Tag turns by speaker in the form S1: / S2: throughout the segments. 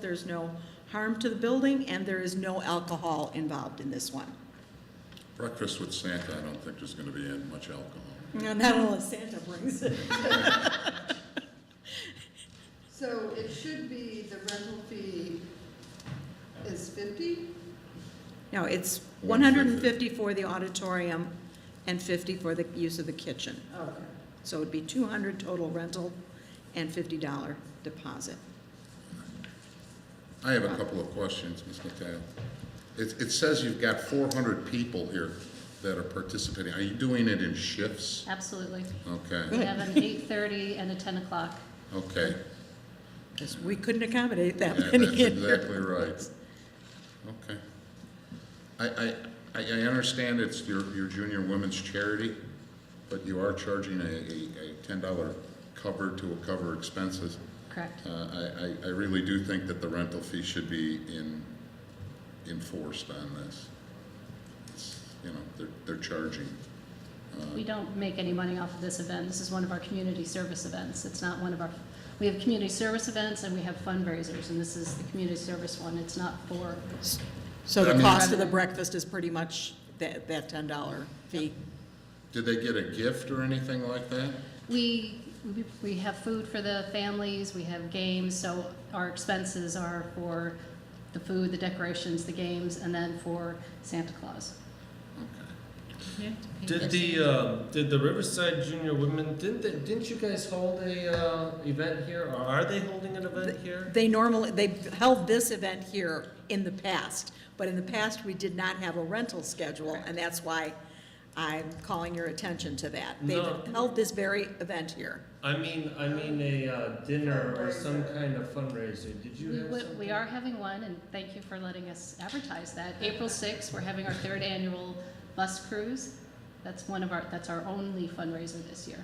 S1: there's no harm to the building, and there is no alcohol involved in this one.
S2: Breakfast with Santa, I don't think there's gonna be in much alcohol.
S1: Now, Not unless Santa brings it.
S3: So it should be, the rental fee is fifty?
S1: No, it's one hundred and
S2: 150.
S1: fifty for the auditorium and fifty for the use of the kitchen.
S3: Okay.
S1: So it'd be two hundred total rental and fifty dollar deposit.
S2: I have a couple of questions, Ms. McDowell. It, it says you've got four hundred people here that are participating. Are you doing it in shifts?
S4: Absolutely. We
S2: Okay,
S4: have an eight-thirty and a ten o'clock.
S2: okay.
S1: 'Cause we couldn't accommodate that
S2: Yeah,
S1: many
S2: that's
S1: in here.
S2: exactly right. Okay. I, I, I I understand it's your, your junior women's charity, but you are charging a, a, a ten dollar cover to cover expenses.
S4: Correct.
S2: Uh, I, I, I really do think that the rental fee should be in, enforced on this. It's, You know, they're, they're charging.
S4: We don't make any money off of this event. This is one of our community service events. It's not one of our, we have community service events and we have fundraisers, and this is the community service one. It's not for,
S1: So
S2: I
S1: the
S2: mean-
S1: cost of the breakfast is pretty much that, that ten dollar fee.
S2: Did they get a gift or anything like that?
S4: we, we- we have food for the families, we have games, so our expenses are for the food, the decorations, the games, and then for Santa Claus.
S5: Did the uh, did the Riverside Junior Women didn't they, didn't you guys hold a uh, event here or are they holding an event here?
S1: They normally, they held this event here in the past, but in the past, we did not have a rental schedule, and that's why I'm calling your attention to that. They've
S5: No.
S1: held this very event here.
S5: I mean I mean a uh, dinner or some kind of fundraiser. Did you
S4: We,
S5: have
S4: we-
S5: something?
S4: we are having one, and thank you for letting us advertise that. April sixth, we're having our third annual bus cruise. That's one of our, that's our only fundraiser this year.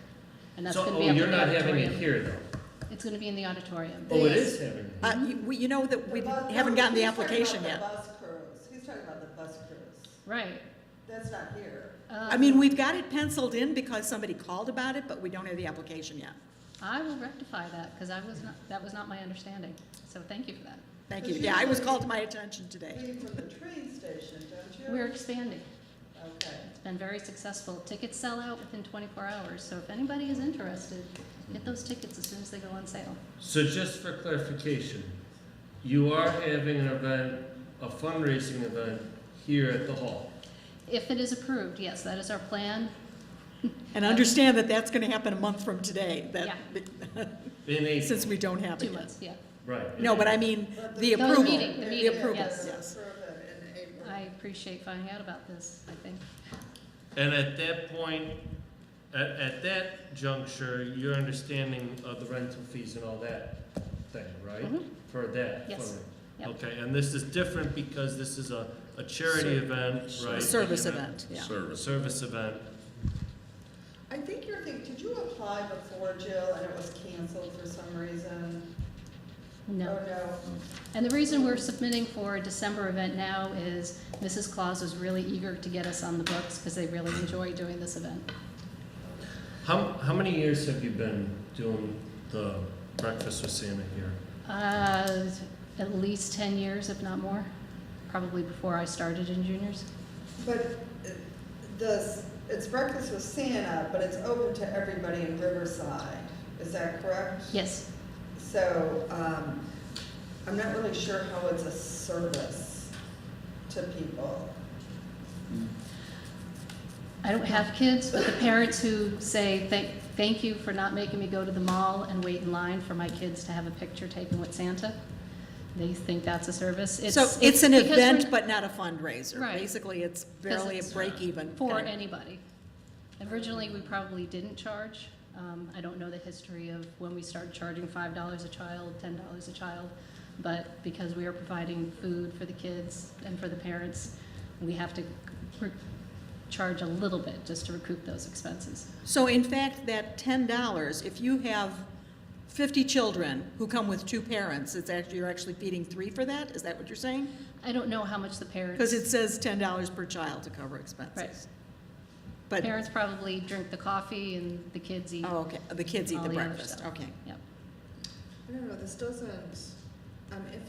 S4: And that's
S5: So
S4: gonna
S5: oh,
S4: be up
S5: you're
S4: in the
S5: not having it
S4: auditorium.
S5: here though.
S4: It's gonna be in the auditorium.
S5: Oh, it
S3: Yes.
S5: is having. it.
S1: Uh, you, we- you know that we
S3: The bus-
S1: haven't
S3: no,
S1: gotten the
S3: he's talking
S1: application
S3: about
S1: yet.
S3: the bus crews. He's talking about the bus crews.
S4: Right.
S3: That's not here.
S4: Uh,
S1: I mean, we've got it penciled in because somebody called about it, but we don't have the application yet.
S4: I will rectify that, because I was not, that was not my understanding. So thank you for that.
S1: Thank
S3: But
S1: you.
S3: you
S1: Yeah, I was
S3: know-
S1: called to my attention today.
S3: Leave from the train station, don't you?
S4: We're expanding.
S3: Okay.
S4: It's been very successful. Tickets sell out within twenty-four hours, so if anybody is interested, get those tickets as soon as they go on sale.
S5: So just for clarification, you are having an event, a fundraising event here at the hall.
S4: If it is approved, yes, that is our plan.
S1: And understand that that's gonna happen a month from today, that,
S5: In a
S1: since we don't have
S4: Two
S1: it yet.
S4: months, yeah.
S5: right.
S1: No, but I mean,
S3: But
S1: the
S3: the-
S1: approval.
S4: meeting, the meeting,
S1: approval,
S4: yes.
S1: yes.
S3: Approve it in April.
S4: I appreciate finding out about this, I think.
S5: And at that point, at, at that juncture, your understanding of the rental fees and all that thing, right?
S4: Mhm.
S5: For that.
S4: Yes.
S5: for-
S4: Yep.
S5: Okay, and this is different because this is a, a charity event, right?
S1: Service
S5: An
S1: event, yeah.
S5: A
S2: Service.
S5: service event.
S3: I think you're thinking, did you apply before, Jill, and it was canceled for some reason?
S4: No.
S3: Oh, no.
S4: And the reason we're submitting for a December event now is Mrs. Claus was really eager to get us on the books because they really enjoy doing this event.
S5: How, how many years have you been doing the breakfast with Santa here?
S4: Uh, At least 10 years, if not more, probably before I started in juniors.
S3: But uh, the, it's breakfast with Santa, but it's open to everybody in Riverside. Is that correct?
S4: Yes,
S3: So, um, I'm not really sure how it's a service to people.
S4: I don't have kids, but the parents who say, "Thank thank you for not making me go to the mall and wait in line for my kids to have a picture taken with Santa," they think that's a service.
S1: So it's an
S4: because we're-
S1: event, but not a fundraiser.
S4: Right.
S1: Basically, it's barely a
S4: it's
S1: break even.
S4: for anybody. Originally, we probably didn't charge. Um, I don't know the history of when we started charging five dollars a child, ten dollars a child, but because we are providing food for the kids and for the parents, we have to re- charge a little bit just to recoup those expenses.
S1: So in fact, that ten dollars, if you have fifty children who come with two parents, it's actually, you're actually feeding three for that? Is that what you're saying?
S4: I don't know how much the parents.
S1: Because it says ten dollars per child to cover expenses. But,
S4: Parents probably drink the coffee and the kids eat.
S1: oh, okay, the kids eat
S4: All
S1: the
S4: the other
S1: breakfast,
S4: stuff.
S1: okay.
S4: Yep.
S3: I don't know, this doesn't, I'm iffy